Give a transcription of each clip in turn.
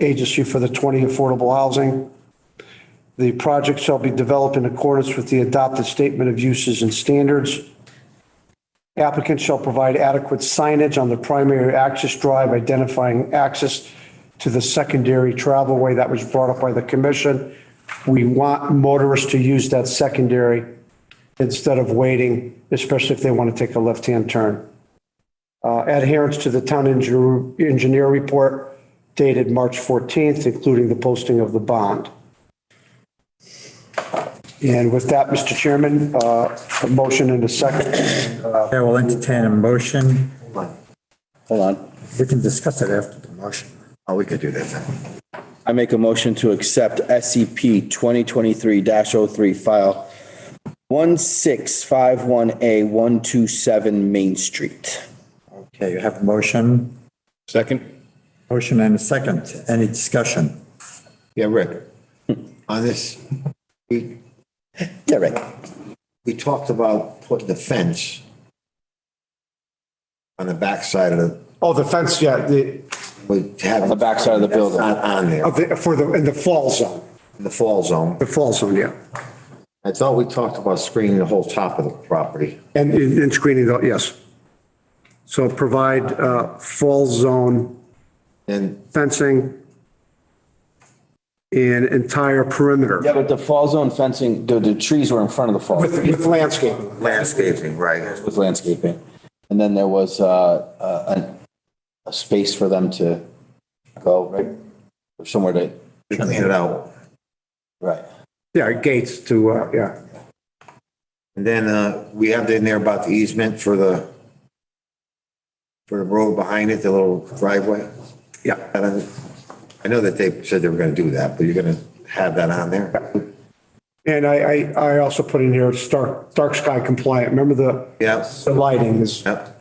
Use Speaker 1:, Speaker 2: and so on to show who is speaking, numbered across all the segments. Speaker 1: agency for the 20 affordable housing. The project shall be developed in accordance with the adopted statement of uses and standards. Applicant shall provide adequate signage on the primary access drive identifying access to the secondary travelway that was brought up by the commission. We want motorists to use that secondary instead of waiting, especially if they want to take a left-hand turn. Uh, Adherence to the town engineer engineer report dated March 14th, including the posting of the bond. And with that, Mr. Chairman, uh, a motion and a second.
Speaker 2: Chair will entertain a motion.
Speaker 3: Hold on.
Speaker 2: We can discuss it after the motion.
Speaker 4: Oh, we could do that then.
Speaker 3: I make a motion to accept SCP twenty twenty-three 3 file one six five one A one two seven Main Street.
Speaker 2: Okay, you have a motion,
Speaker 5: Second?
Speaker 2: motion and a second. Any discussion?
Speaker 4: Yeah, Rick, on this, we,
Speaker 3: Yeah, Rick.
Speaker 4: we talked about putting the fence on the backside of the,
Speaker 1: Oh, the fence, yeah, the,
Speaker 4: we have.
Speaker 3: On the backside of the
Speaker 4: That's
Speaker 3: building.
Speaker 4: Not on there,
Speaker 1: of the- for the, in the fall zone,
Speaker 4: in the fall zone.
Speaker 1: the fall zone, yeah.
Speaker 4: I thought we talked about screening the whole top of the property.
Speaker 1: And, and screening, though, yes. So provide uh, fall zone
Speaker 4: And
Speaker 1: fencing and entire perimeter.
Speaker 3: Yeah, but the fall zone fencing, the, the trees were in front of the fall
Speaker 1: With, with landscaping.
Speaker 4: landscaping, right?
Speaker 3: with landscaping. And then there was, uh, uh, an- a space for them to go, right? Or Somewhere to,
Speaker 4: We clean it out.
Speaker 3: right.
Speaker 1: Yeah, gates to, uh, yeah.
Speaker 4: And then, uh, we have in there about the easement for the, for the road behind it, the little driveway.
Speaker 1: Yeah.
Speaker 4: And I- I know that they said they were gonna do that, but you're gonna have that on there?
Speaker 1: And I, I, I also put in here, it's dark, dark sky compliant. Remember the,
Speaker 4: Yeah,
Speaker 1: the lighting is,
Speaker 4: yep.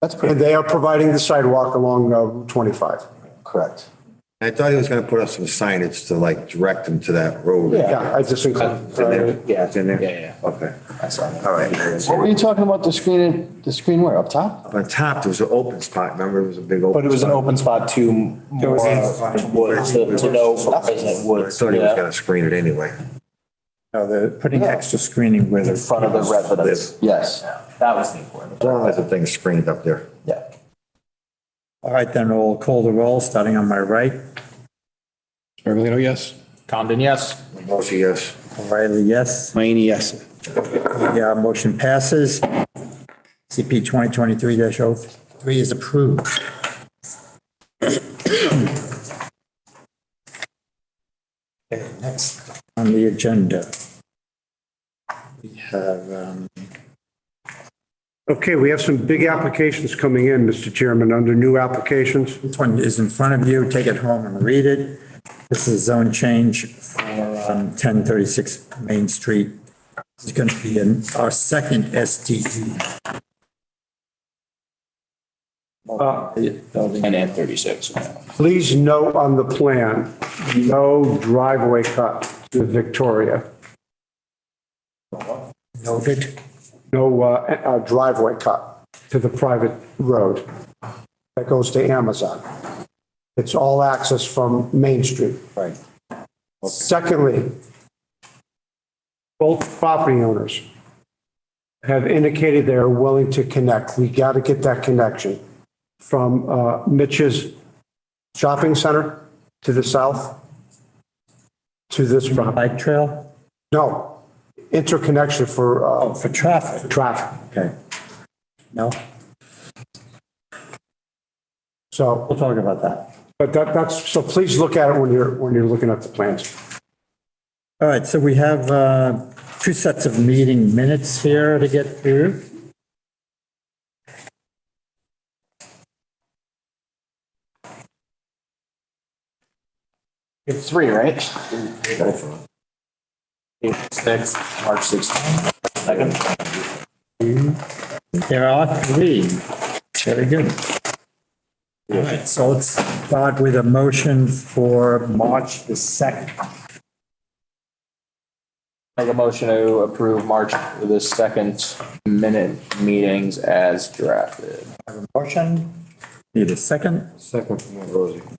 Speaker 3: That's pretty
Speaker 1: and they are providing the sidewalk along uh, Route 25.
Speaker 3: correct.
Speaker 4: I thought he was gonna put up some signage to like direct them to that road.
Speaker 1: Yeah, I just uh, included.
Speaker 3: Yeah.
Speaker 4: It's in there?
Speaker 3: Yeah, yeah,
Speaker 4: Okay,
Speaker 3: I saw that.
Speaker 4: all right.
Speaker 3: What were you talking about, the screen, the screen where, up top?
Speaker 4: On top, there was an open spot, remember, it was a big open.
Speaker 6: But it was an open spot to more, to wood, to to no resident
Speaker 4: I
Speaker 6: woods,
Speaker 4: thought he was
Speaker 6: yeah,
Speaker 4: gonna screen it anyway.
Speaker 2: No, they're putting extra screening where
Speaker 6: in
Speaker 2: the
Speaker 6: front of the residents.
Speaker 3: Yes,
Speaker 6: That was the important.
Speaker 4: As long as the thing's screened up there.
Speaker 3: yeah.
Speaker 2: All right, then we'll call the roll, starting on my right.
Speaker 5: Smirgalino, yes?
Speaker 6: Condon, yes.
Speaker 4: Motion, yes.
Speaker 2: O'Reilly, yes.
Speaker 3: Mayne, yes.
Speaker 2: The uh, motion passes. CP 2023-03 is approved. Okay, next on the agenda. We have, um,
Speaker 1: Okay, we have some big applications coming in, Mr. Chairman, under new applications.
Speaker 2: This one is in front of you, take it home and read it. This is zone change for um, 1036 Main Street. This is going to be in our second E SDE.
Speaker 6: And at thirty-six.
Speaker 1: Please note on the plan, no driveway cut to Victoria.
Speaker 2: Noted.
Speaker 1: no uh, uh, driveway cut to the private road that goes to Amazon. It's all access from Main Street.
Speaker 3: Right.
Speaker 1: Secondly, both property owners have indicated they are willing to connect. We got to get that connection from uh, Mitch's shopping center to the south to this property.
Speaker 2: Bike trail?
Speaker 1: No, interconnection for uh,
Speaker 2: Oh, for traffic.
Speaker 1: traffic.
Speaker 2: Okay. No,
Speaker 1: So
Speaker 2: we'll talk about that.
Speaker 1: But that, that's, so please look at it when you're, when you're looking at the plans.
Speaker 2: All right, so we have uh, two sets of meeting minutes here to get through.
Speaker 6: It's three, right? April sixth, March sixteenth. Second.
Speaker 2: There are three. Very good. All right, so let's start with a motion for March the 2nd.
Speaker 6: Make a motion to approve March the second minute meetings as drafted.
Speaker 2: Motion, need a second?
Speaker 4: Second from Rosie.